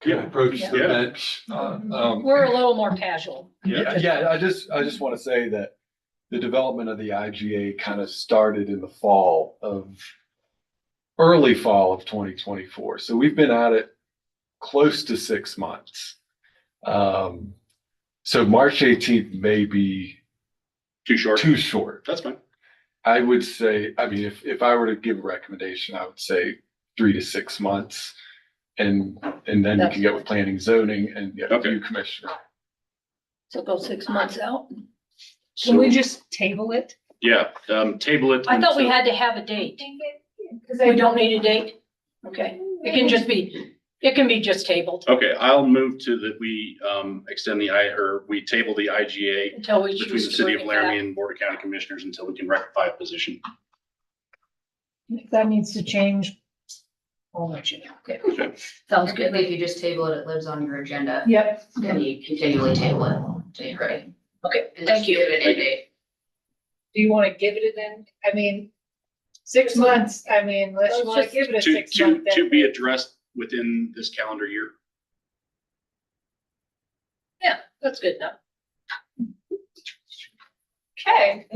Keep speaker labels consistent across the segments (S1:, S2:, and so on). S1: can
S2: Yeah.
S1: approach the
S3: Yeah.
S1: bench.
S2: Uh,
S1: Um,
S3: We're a little more casual.
S2: Yeah.
S4: Yeah, yeah, I just, I just want to say that the development of the IGA kind of started in the fall of early fall of twenty twenty-four. So we've been at it close to six months. Um, so March eighteenth may be
S2: Too short.
S4: too short.
S2: That's fine.
S4: I would say, I mean, if, if I were to give a recommendation, I would say three to six months. And, and then you can get with planning zoning and get with
S2: Okay.
S4: you commissioner.
S3: So go six months out.
S5: Can
S2: So,
S5: we just table it?
S2: yeah, um, table it.
S3: I thought we
S2: until-
S3: had to have a date.
S5: Cause
S3: We don't need a date? Okay, it can just be, it can be just tabled
S2: Okay, I'll move to that we, um, extend the I, or we table the IGA
S3: until we
S2: between the
S3: choose to
S2: city
S3: bring
S2: of
S3: it back.
S2: Laramie and Board of County Commissioners until we can rectify a position.
S5: If that needs to change, I'll let you know.
S6: Sounds good. If you just table it, it lives on your agenda
S5: Yep.
S6: and you continually table it till you're ready.
S3: Okay,
S6: And
S3: thank
S6: just
S3: you.
S6: Give it a date.
S5: Do you wanna give it an, I mean, six months, I mean, unless you wanna
S3: Let's
S5: give it a
S2: To,
S5: six
S2: to,
S5: month.
S2: to be addressed within this calendar year.
S3: That's good enough.
S5: Okay.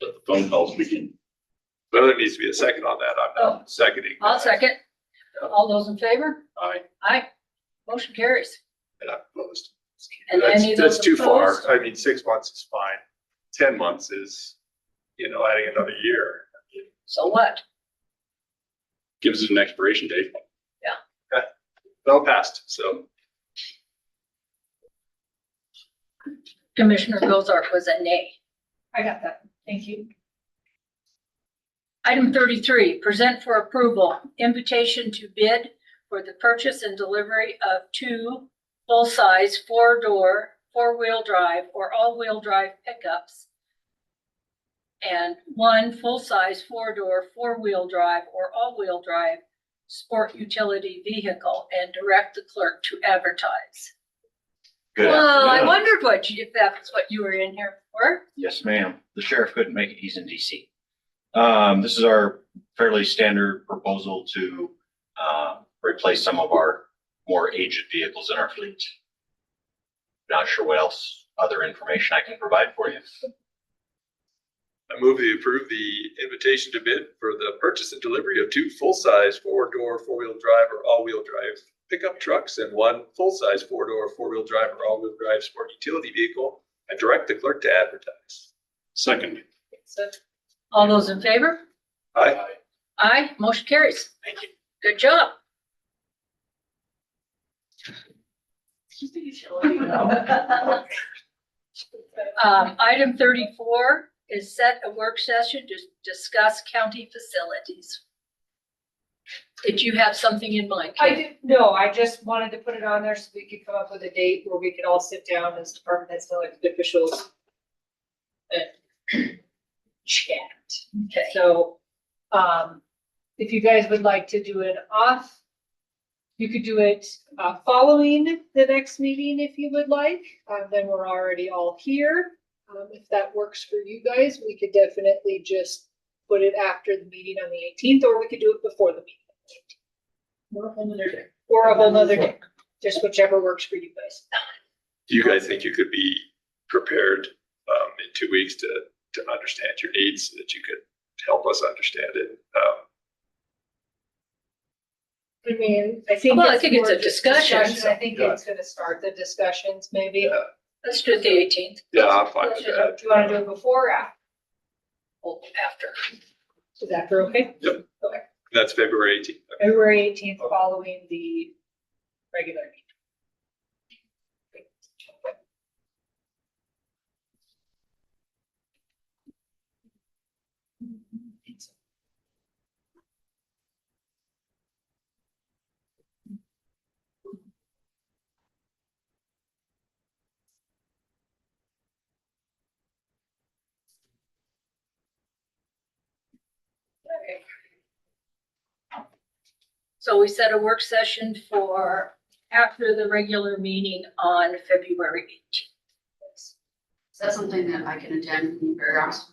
S2: But the phone calls begin.
S7: But there needs to be a second on that. I'm not seconding.
S3: Oh, I'll second. All those in favor?
S2: Aye.
S3: Aye. Motion carries.
S7: And I'm opposed.
S3: And
S7: That's-
S3: any of those
S7: That's too
S3: opposed?
S7: far. I mean, six months is fine. Ten months is, you know, adding another year.
S3: So what?
S2: Gives it an expiration date.
S7: Well passed, so.
S3: Commissioner Gozart was a nay.
S5: I got that, thank you.
S3: Item thirty-three, present for approval, invitation to bid for the purchase and delivery of two full-size four-door, four-wheel drive or all-wheel drive pickups and one full-size four-door, four-wheel drive or all-wheel drive sport utility vehicle and direct the clerk to advertise.
S8: Good
S3: Well, I
S8: afternoon.
S3: wondered what, you- if that's what you were in here for.
S8: Yes, ma'am. The sheriff couldn't make it. He's in DC. Um, this is our fairly standard proposal to, um, replace some of our more aged vehicles in our fleet. Not sure what else, other information I can provide for you.
S7: I move to approve the invitation to bid for the purchase and delivery of two full-size four-door, four-wheel drive or all-wheel drive pickup trucks and one full-size four-door, four-wheel drive or all-wheel drive sport utility vehicle and direct the clerk to advertise.
S2: Second.
S3: All those in favor?
S7: Aye.
S3: Aye, motion carries. Thank you. Good job. Um, item thirty-four is set a work session to discuss county facilities. Did you have something in mind?
S5: I
S3: Kate?
S5: did, no, I just wanted to put it on there so we could come up with a date where we could all sit down as department heads and elected officials and chat.
S3: Okay.
S5: So, um, if you guys would like to do an off, you could do it, uh, following the next meeting if you would like. Um, then we're already all here. Um, if that works for you guys, we could definitely just put it after the meeting on the eighteenth, or we could do it before the meeting. Or a whole nother day. Or a whole nother day, just whichever works for you guys.
S7: Do you guys think you could be prepared um, in two weeks to, to understand your needs, so that you could help us understand it? Um,
S5: I mean, I think.
S3: Well, I think it's
S5: more
S3: a
S5: just
S3: discussion,
S5: I think
S7: yeah.
S5: it's gonna start the discussions maybe.
S7: Yeah.
S3: Let's do the eighteenth
S7: Yeah, I'm fine
S5: Do
S7: with
S5: you
S7: that.
S5: wanna do it before or after?
S3: after.
S5: Is that for okay?
S7: That's February eighteenth.
S5: February eighteenth following the regular meeting.
S3: So we set a work session for after the regular meeting on February eighteenth.
S6: Is that something that I can attend in Fairgrounds?